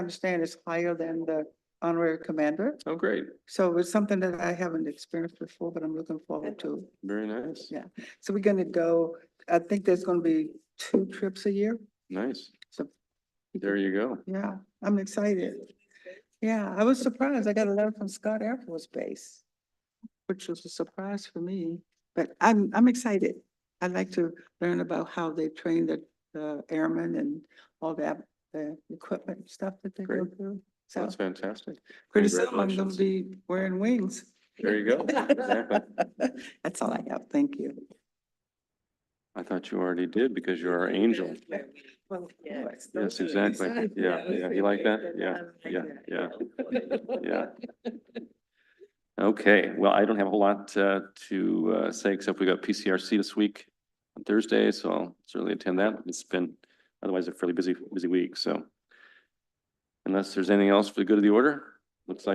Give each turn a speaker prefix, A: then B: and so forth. A: understand is higher than the honorary commander.
B: Oh, great.
A: So it's something that I haven't experienced before, but I'm looking forward to.
B: Very nice.
A: Yeah. So we're gonna go, I think there's gonna be two trips a year.
B: Nice.
A: So-
B: There you go.
A: Yeah, I'm excited. Yeah, I was surprised. I got a letter from Scott Air Force Base, which was a surprise for me, but I'm, I'm excited. I'd like to learn about how they train the, the airmen and all that, the equipment and stuff that they go
B: Great.
A: through. So
B: That's fantastic.
A: pretty soon I'm gonna
B: congratulations.
A: be wearing wings.
B: There you go. Exactly.
A: That's all I have. Thank you.
B: I thought you already did because you're our angel.
A: Well,
C: Yes,
B: Yes, exactly. Yeah, yeah. You like that? Yeah, yeah, yeah, yeah. Okay, well, I don't have a whole lot uh, to uh, say, except we got PCRC this week on Thursday, so I'll certainly attend that. It's been otherwise a fairly busy, busy week, so. Unless there's anything else for the good of the order, looks like